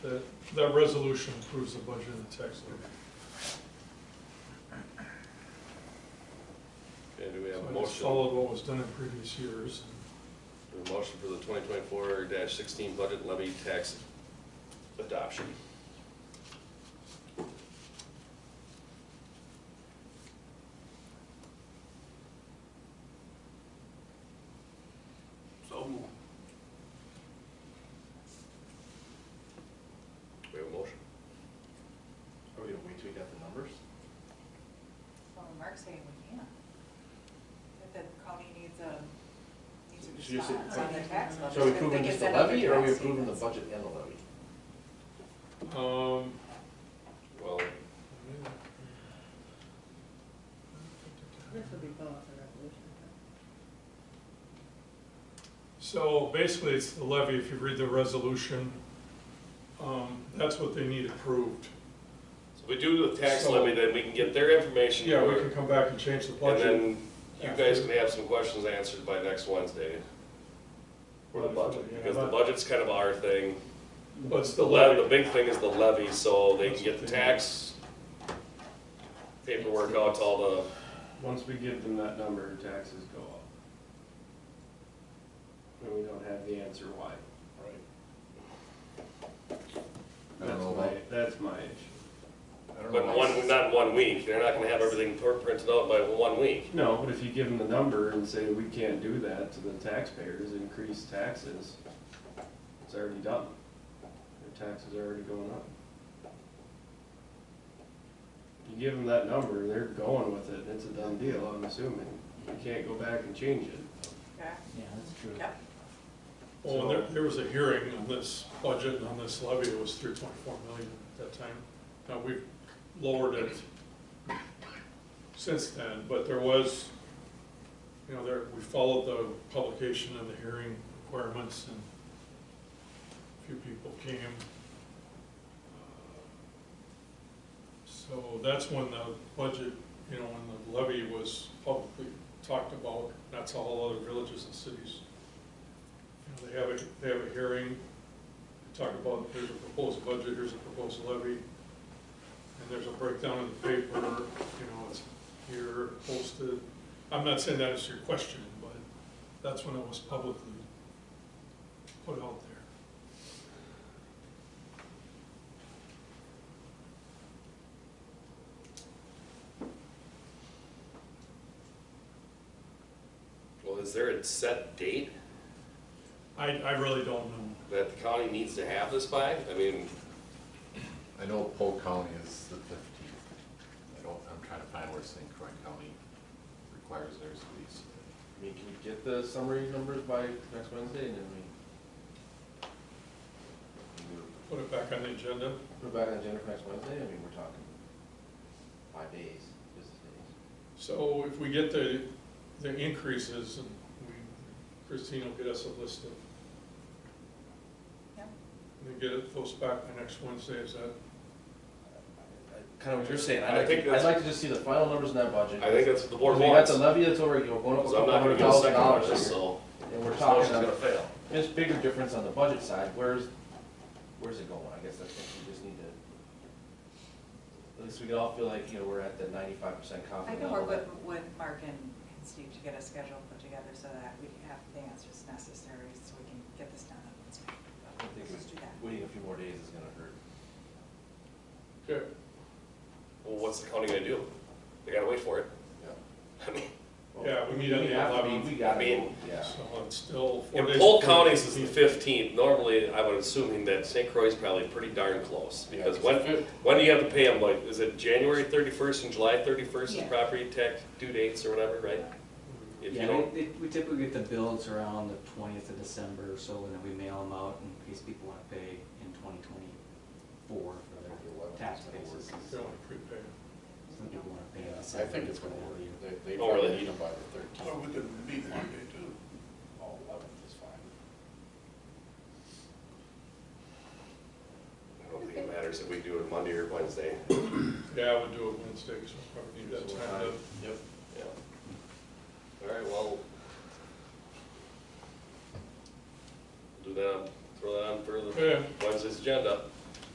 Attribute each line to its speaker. Speaker 1: That, that resolution approves the budget and the tax levy.
Speaker 2: Okay, do we have a
Speaker 1: So I just
Speaker 2: motion?
Speaker 1: Followed what was done in previous years.
Speaker 2: A motion for the twenty twenty-four sixteen budget levy tax adoption. So moved. We have a motion.
Speaker 3: Are we gonna wait till we got the numbers?
Speaker 4: Well, Mark's saying we can. If the county needs a, needs a
Speaker 3: So you're saying-
Speaker 4: response on their tax levy.
Speaker 3: So are we
Speaker 4: if they
Speaker 3: approving
Speaker 4: can
Speaker 3: just the
Speaker 4: send out
Speaker 3: levy,
Speaker 4: their
Speaker 3: or are we
Speaker 4: tax
Speaker 3: approving the
Speaker 4: statements.
Speaker 3: budget and the levy?
Speaker 1: Um,
Speaker 2: Well,
Speaker 5: This will be both a resolution. but-
Speaker 1: So basically, it's the levy, if you read the resolution, um, that's what they need approved.
Speaker 2: so we do the tax
Speaker 1: So-
Speaker 2: levy, then we can get their information.
Speaker 1: Yeah, we can come back and change the
Speaker 2: And
Speaker 1: budget.
Speaker 2: then you guys can have some questions answered by next Wednesday. For the budget, because the budget's kind of our thing.
Speaker 1: But it's
Speaker 2: The
Speaker 1: the
Speaker 2: levy,
Speaker 1: levy.
Speaker 2: the big thing is the levy, so they can get the tax paperwork out to all the,
Speaker 6: Once we give them that number, taxes go up. And we don't have the answer why.
Speaker 3: I don't
Speaker 6: That's
Speaker 3: know
Speaker 6: my,
Speaker 3: about-
Speaker 6: that's my issue.
Speaker 3: I don't know
Speaker 2: but
Speaker 3: why
Speaker 2: one,
Speaker 3: it's-
Speaker 2: not in one week. They're not gonna have everything pr- printed out by one week.
Speaker 6: No, but if you give them the number and say, we can't do that to the taxpayers, increase taxes, it's already done. Their taxes are already going up. You give them that number, they're going with it, it's a done deal, I'm assuming. You can't go back and change it.
Speaker 4: Okay,
Speaker 7: Yeah, that's true.
Speaker 4: yeah.
Speaker 1: Well, there, there was a hearing on this budget and on this levy, it was three point four million at that time. Now, we've lowered it since then, but there was, you know, there, we followed the publication and the hearing requirements and a few people came. So that's when the budget, you know, when the levy was publicly talked about, that's how all other villages and cities you know, they have a, they have a hearing, they talk about, here's a proposed budget, here's a proposed levy, and there's a breakdown in the paper, you know, it's here posted. I'm not saying that is your question, but that's when it was publicly put out there.
Speaker 2: Well, is there a set date
Speaker 1: I, I really don't know.
Speaker 2: that the county needs to have this by? I mean,
Speaker 3: I know Polk County is the fifteenth. I don't, I'm trying to find where St. Croix County requires theirs to be. I mean, can you get the summary numbers by next Wednesday, and then we
Speaker 1: Put it back on the agenda.
Speaker 3: put it back on the agenda for next Wednesday? I mean, we're talking five days, business days.
Speaker 1: So if we get the, the increases, and we, Christine will get us a list of,
Speaker 4: Yep.
Speaker 1: and get it, those back by next Wednesday, is that
Speaker 3: Kind of what you're saying,
Speaker 2: I
Speaker 3: I'd like,
Speaker 2: think
Speaker 3: to- I'd
Speaker 2: that's-
Speaker 3: like to just see the final numbers in that budget.
Speaker 2: I think that's what the board
Speaker 3: Because we got
Speaker 2: wants.
Speaker 3: the
Speaker 2: So
Speaker 3: levy that's already going up a
Speaker 2: I'm
Speaker 3: couple
Speaker 2: not gonna
Speaker 3: hundred
Speaker 2: get a
Speaker 3: thousand
Speaker 2: second on
Speaker 3: dollars
Speaker 2: this,
Speaker 3: here.
Speaker 2: so.
Speaker 3: And we're
Speaker 2: this
Speaker 3: talking,
Speaker 2: motion's gonna
Speaker 3: about-
Speaker 2: fail.
Speaker 3: there's bigger difference on the budget side, where's, where's it going? I guess that's what we just need to, at least we can all feel like, you know, we're at the ninety-five percent
Speaker 4: I
Speaker 3: confident
Speaker 4: can work
Speaker 3: level.
Speaker 4: with, with Mark and and Steve to get a schedule put together so that we can have the answers necessary so we can get this done. on Wednesday.
Speaker 3: I think
Speaker 4: Let's do that.
Speaker 3: Waiting a few more days is gonna hurt.
Speaker 1: Okay.
Speaker 2: Well, what's the county gonna do? They gotta wait for it. I mean,
Speaker 3: Well,
Speaker 1: Yeah, we meet on the
Speaker 3: have to be-
Speaker 1: 11th.
Speaker 3: We gotta,
Speaker 2: I mean,
Speaker 3: go, yeah.
Speaker 1: So uh, it's still. four
Speaker 2: In
Speaker 1: days
Speaker 2: Polk
Speaker 1: before
Speaker 2: counties is the
Speaker 1: 15th.
Speaker 2: fifteenth, normally I would assuming that St. Croix is probably pretty darn close,
Speaker 3: Yeah,
Speaker 2: because
Speaker 3: it's
Speaker 2: when,
Speaker 3: the fif-
Speaker 2: when do you have to pay them, like, is it January thirty-first and July thirty-first is
Speaker 4: Yeah.
Speaker 2: property tax due dates or whatever, right? If you
Speaker 7: Yeah,
Speaker 2: don't,
Speaker 7: we- we typically get the bills around the twentieth of December, or so and then we mail them out in case people wanna pay in twenty twenty-four for their tax basis.
Speaker 1: They only prepay.
Speaker 7: Some people wanna pay in
Speaker 8: I
Speaker 7: December.
Speaker 8: think it's gonna work.
Speaker 7: whatever year.
Speaker 8: They, they
Speaker 2: Oh, really?
Speaker 8: probably need them by the thirteenth.
Speaker 9: Well, we could meet Monday too.
Speaker 8: All eleventh is fine.
Speaker 2: I don't think it matters if we do it Monday or Wednesday.
Speaker 1: Yeah, I would do it Wednesday, so I probably need that time to.
Speaker 3: Yep.
Speaker 2: Yeah. All right, well. Do that, throw that on for the
Speaker 1: Yeah.
Speaker 2: Wednesday's agenda.